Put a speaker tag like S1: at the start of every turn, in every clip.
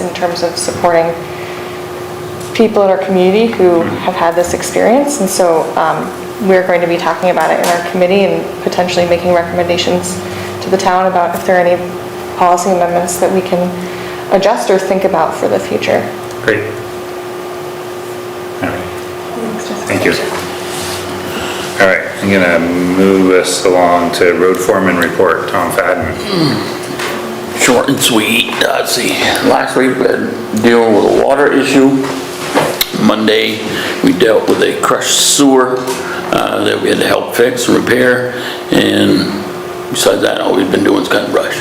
S1: in terms of supporting people in our community who
S2: Mm-hmm.
S1: have had this experience. And so um, we're going to be talking about it in our committee and potentially making recommendations to the town about if there are any policy amendments that we can adjust or think about for the future.
S2: Great. All right, thank you. All right, I'm gonna move us along to road foreman report, Tom Fadden.
S3: short and sweet. Uh, Let's see, last week we had dealing with a water issue. Monday, we dealt with a crushed sewer uh, that we had to help fix and repair. And besides that, all we've been doing is cutting brush.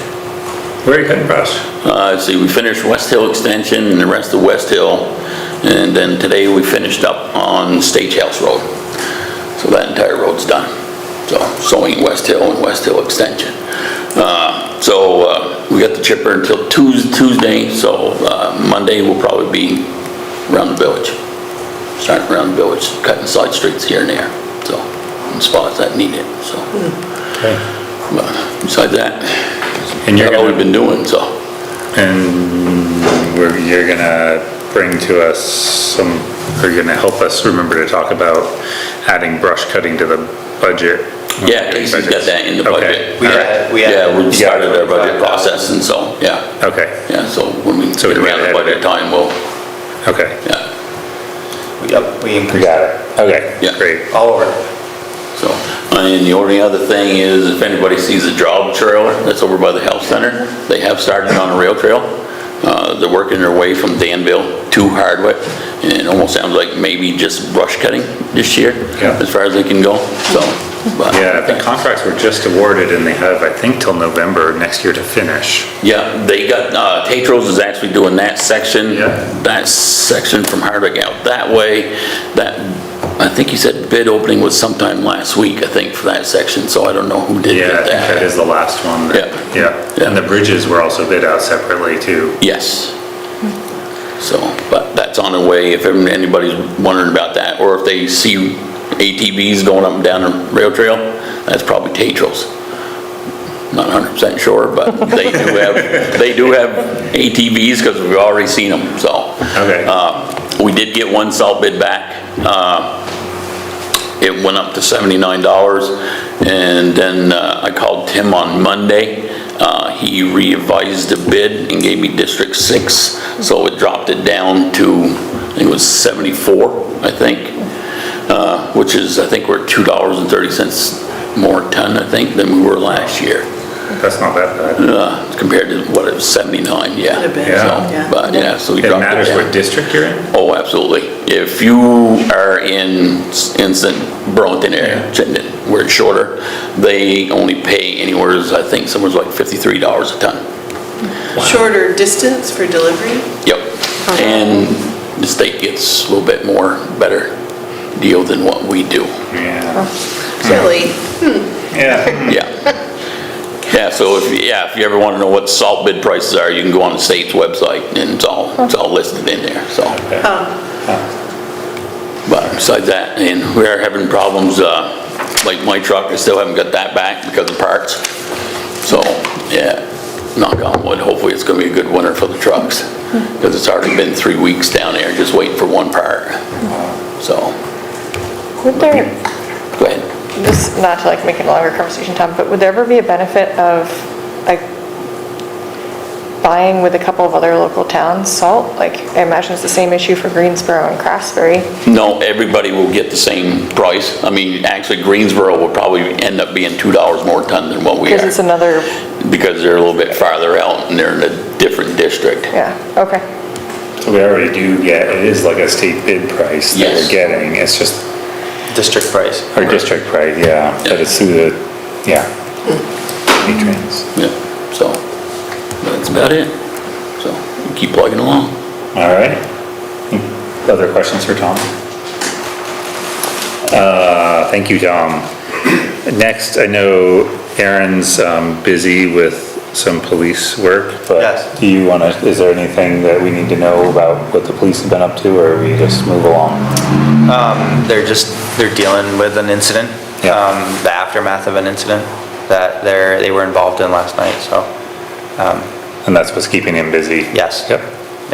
S2: Where are you cutting brush?
S3: Uh, let's see, we finished West Hill Extension and the rest of West Hill. And then today, we finished up on Stagehouse Road. So that entire road's done. So sewing West Hill and West Hill Extension. Uh, So uh, we got the chipper until Tues- Tuesday, so uh, Monday, we'll probably be around the village. Starting around the village, cutting side streets here and there, so, in spots that need it, so. But Besides that,
S2: And you're
S3: that's all
S2: gonna-
S3: we've been doing, so.
S2: And we're, you're gonna bring to us some, or you're gonna help us remember to talk about adding brush cutting to the budget.
S3: Yeah, Casey's got that in the
S2: Okay,
S3: budget.
S4: We
S2: all right,
S4: had, we had.
S3: Yeah, we started our budget
S4: $45,000.
S3: process, and so, yeah,
S2: Okay,
S3: yeah, so when we
S2: So we
S3: get
S2: can
S3: around
S2: add
S3: the
S2: it.
S3: budget time, we'll,
S2: okay.
S3: yeah,
S4: Yep, we increased.
S2: it. Okay,
S3: Yeah.
S2: great.
S4: All over.
S3: so. And the only other thing is, if anybody sees the job trailer that's over by the health center, they have started on a rail trail. Uh, They're working their way from Danville to Hardwick, and it almost sounds like maybe just brush cutting this year,
S2: Yeah.
S3: as far as they can go, so. but-
S2: Yeah, the contracts were just awarded and they have, I think, till November next year to finish.
S3: Yeah, they got, uh, Tetros is actually doing that section.
S2: Yeah.
S3: That section from Hardwick out that way. That, I think he said bid opening was sometime last week, I think, for that section, so I don't know who did
S2: Yeah, I
S3: get
S2: think that
S3: that.
S2: is the last one. that- Yeah, and the bridges were also bid out separately too.
S3: Yes. So, but that's on the way, if anybody's wondering about that, or if they see ATVs going up and down the rail trail, that's probably Tetros. Not hundred percent sure, but they do have, they do have ATVs, because we've already seen them, so.
S2: Okay.
S3: Uh, We did get one salt bid back. Uh, It went up to $79, and then uh, I called Tim on Monday. Uh, He revised the bid and gave me District 6, so it dropped it down to, I think it was 74, I think, uh, which is, I think we're $2.30 more ton, I think, than we were last year,
S2: That's not that bad.
S3: uh, compared to what it was 79, yeah.
S5: Could have been,
S3: So,
S5: yeah.
S3: But, yeah, so we
S2: It
S3: dropped it down.
S2: matters what district you're in?
S3: Oh, absolutely. If you are in, in St. Burlington area, Chittenden, where it's shorter, they only pay anywhere, I think, somewhere's like $53 a ton.
S5: Shorter distance for delivery?
S3: Yep. And the state gets a little bit more, better deal than what we do.
S2: Yeah.
S5: Really?
S2: Yeah.
S3: Yeah. Yeah, so if, you- yeah, if you ever want to know what salt bid prices are, you can go on the state's website, and it's all, it's all listed in there, so. But besides that, and we are having problems, uh, like my truck, I still haven't got that back because of parts. So, yeah, knock on wood, hopefully it's gonna be a good winter for the trucks, because it's already been three weeks down there just waiting for one part. So,
S1: Would there,
S3: go ahead.
S1: just not to like make it a longer conversation, Tom, but would there ever be a benefit of like buying with a couple of other local towns salt? Like I imagine it's the same issue for Greensboro and Craftsbury.
S3: No, everybody will get the same price. I mean, actually Greensboro will probably end up being two dollars more ton than what we
S1: Because it's
S3: are,
S1: another,
S3: because they're a little bit farther out and they're in a different district.
S1: yeah, okay.
S2: So we already do get, it is like a state bid price that we're
S3: Yes.
S2: getting. It's just
S4: District price.
S2: our district price, yeah, but it's through the, yeah. Patrons.
S3: Yeah, so, that's about it. So, you keep plugging along.
S2: All right. Other questions for Tom? Uh, thank you, Tom. Next, I know Aaron's, um, busy with some police work,
S4: Yes.
S2: but do you wanna, is there anything that we need to know about what the police have been up to, or we just move along?
S4: They're just, they're dealing with an incident.
S2: Yeah.
S4: um, The aftermath of an incident that they're, they were involved in last night, so,
S2: And that's what's keeping him busy?
S4: yes.
S2: Yep.